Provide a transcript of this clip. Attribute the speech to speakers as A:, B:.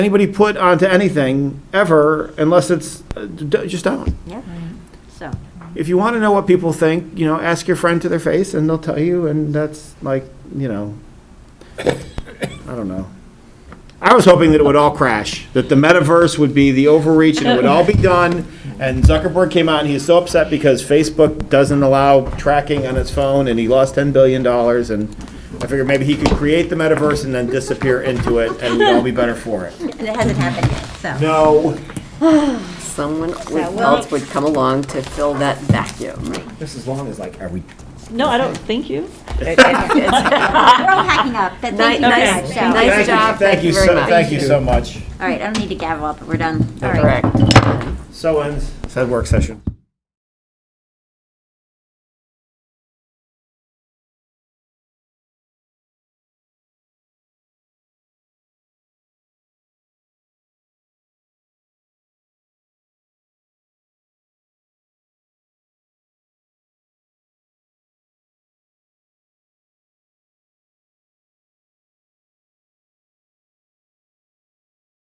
A: anybody put onto anything ever unless it's, uh, d- just don't.
B: Yeah, so,
A: If you want to know what people think, you know, ask your friend to their face and they'll tell you, and that's like, you know, I don't know. I was hoping that it would all crash, that the metaverse would be the overreach and it would all be done. And Zuckerberg came out and he was so upset because Facebook doesn't allow tracking on its phone and he lost $10 billion. And I figured maybe he could create the metaverse and then disappear into it and we'd all be better for it.
B: and it hasn't happened yet, so.
A: No.
C: Someone
B: well-
C: else would come along to fill that vacuum.
D: Just as long as like, are we
E: No, I don't think you.
B: We're all hacking up, but thank you very
C: Nice,
B: much, so.
C: nice
A: Thank you-
C: job, thank you very
A: so-
C: much.
A: Thank you so much.
B: All right, I don't need to gavel up, but we're done. All right.
C: Correct.
A: So ends said work session.